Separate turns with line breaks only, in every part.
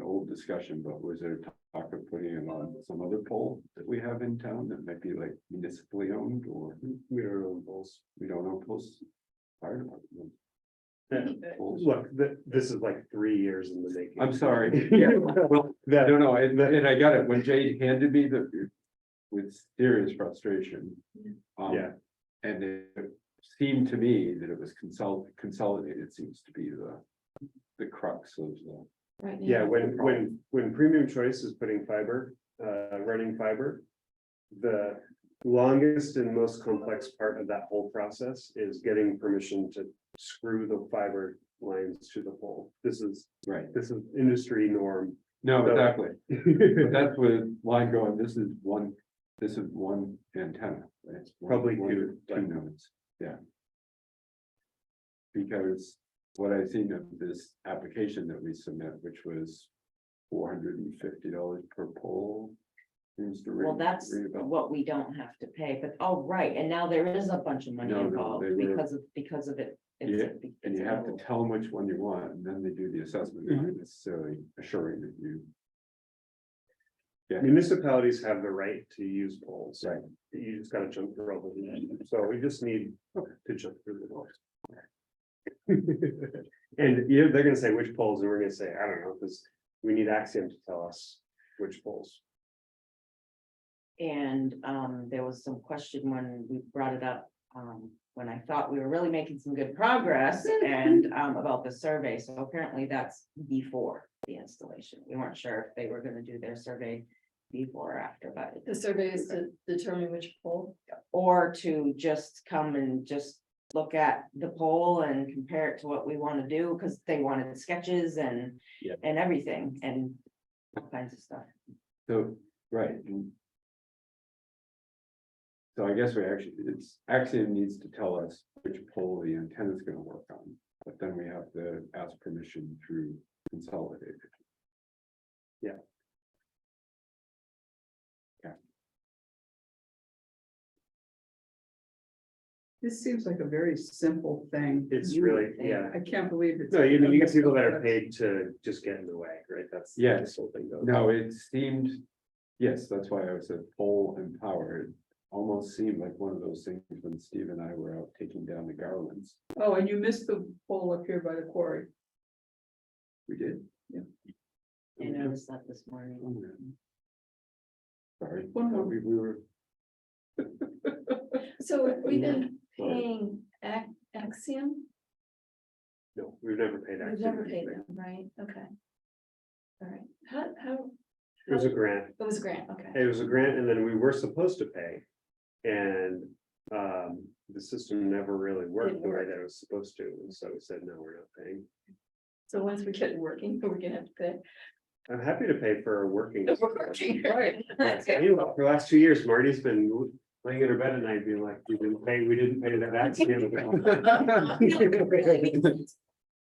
full discussion, but was there talk of putting it on some other pole that we have in town that might be like municipally owned or? We don't own poles. We don't own poles. Fire department.
Then,
Poles.
look, th- this is like three years in the making.
I'm sorry. Yeah, well, I
That,
don't know, and, and I got it when Jay handed me the, with serious frustration. um,
Yeah.
And it seemed to me that it was consol- consolidated seems to be the, the crux of the.
Right.
yeah, when, when, when Premium Choice is putting fiber, uh, running fiber. The longest and most complex part of that whole process is getting permission to screw the fiber lines to the pole. This is,
Right.
this is industry norm.
No,
So-
exactly, but that's with line going, this is one, this is one antenna. right? It's one-
Probably
one-
two,
Two
right.
nodes, yeah. Because what I've seen of this application that we submit, which was four hundred and fifty dollars per pole. Seems to ring.
Well, that's
ring a bell.
what we don't have to pay, but, oh, right, and now there is a bunch of money
No, no,
involved
they were-
because of, because of it. It's a-
And
it's
you
a
have to
whole-
tell them which one you want, and then they do the assessment, They're
Mm-hmm.
not necessarily assuring that you.
Municipalities have the right to use poles.
Right.
You just gotta jump through all the hoops. So we just need to jump through the hoops. And yeah, they're gonna say which poles, and we're gonna say, I don't know, because we need Axiom to tell us which poles.
And um, there was some question when we brought it up, um, when I thought we were really making some good progress and um, about the survey, so apparently that's before the installation. We weren't sure if they were gonna do their survey before or after, but
The survey is to determine which pole.
or to just come and just look at the poll and compare it to what we want to do, because they wanted sketches and,
Yeah.
and everything, and all kinds of stuff.
So, right. and- So I guess we actually, it's Axiom needs to tell us which pole the antenna is gonna work on, but then we have to ask permission through consolidated.
Yeah.
Yeah.
This seems like a very simple thing.
It's
You-
really, yeah.
I can't believe it's.
No, you mean, you get people that are paid to just get in the way, right? That's.
Yeah.
This whole thing goes.
No, it seemed, yes, that's why I said pole and power. It Almost seemed like one of those things when Steve and I were out taking down the garlands.
Oh, and you missed the pole up here by the quarry.
We did.
I noticed that this morning.
Sorry,
One more.
we we were.
So if we've been paying Ac- Axiom,
No, we've never paid.
we've
Axiom
never paid
anything.
them, right? Okay. All right, how, how,
It was a grant.
it was a grant, okay.
It was a grant and then we were supposed to pay. And um, the system never really worked the way that it was supposed to. And so we said, no, we're not paying.
So once we get it working, we're gonna have to pay.
I'm happy to pay for a working.
Working, right.
That's how you look. For the last two years, Marty's been laying in her bed at night being like, we didn't pay, we didn't pay that accident.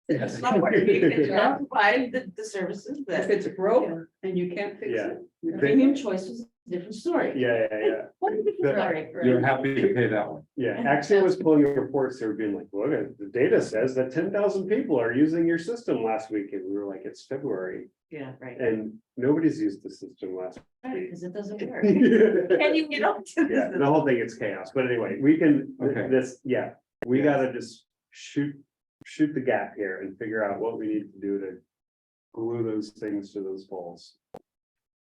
Yes.
Somewhere you can try to Provide the, the services
If
that,
it's broke and you can't fix
Yeah.
it.
the premium choice was a different story.
Yeah, yeah, yeah.
What a different
That-
story.
You're happy to pay that one.
Yeah, Axiom was pulling reports, they were being like, look, the data says that ten thousand people are using your system last week, and we were like, it's February.
Yeah, right,
And nobody's used the system last.
because it doesn't work.
Yeah,
Can you get up to this?
the whole thing is chaos, but anyway, we can,
Okay.
this, yeah, we
Yes.
gotta just shoot, shoot the gap here and figure out what we need to do to. Glue those things to those poles.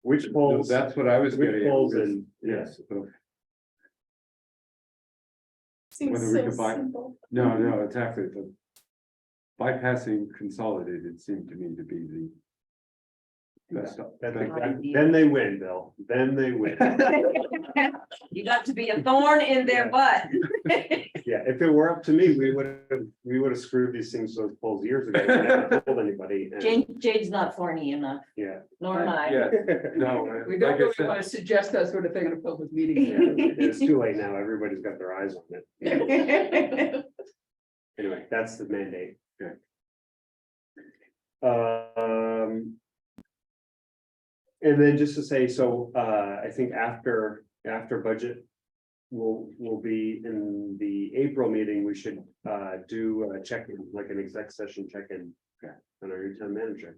Which
No,
poles,
That's what I was
which
getting. at,
poles
was-
and, yes,
Yes, so-
Seems
Whether we
so
could buy-
simple.
no, no, exactly, the. Bypassing consolidated seemed to me to be the. Best,
then they win, Bill, then they win.
You got to be a thorn in their butt.
Yeah, if it were up to me, we would have, we would have screwed these things to those poles years ago. and never told anybody. and-
Jane, Jade's not thorny enough,
Yeah.
nor am I.
yeah, no,
We
like I
don't really
said,
want to suggest that sort of thing in a public meeting.
It's too late now. Everybody's got their eyes on it. Anyway, that's the mandate.
Okay.
Um. And then just to say, so uh, I think after, after budget. Will, will be in the April meeting, we should uh, do a check-in, like an exec session check-in.
Okay.
On our new town manager.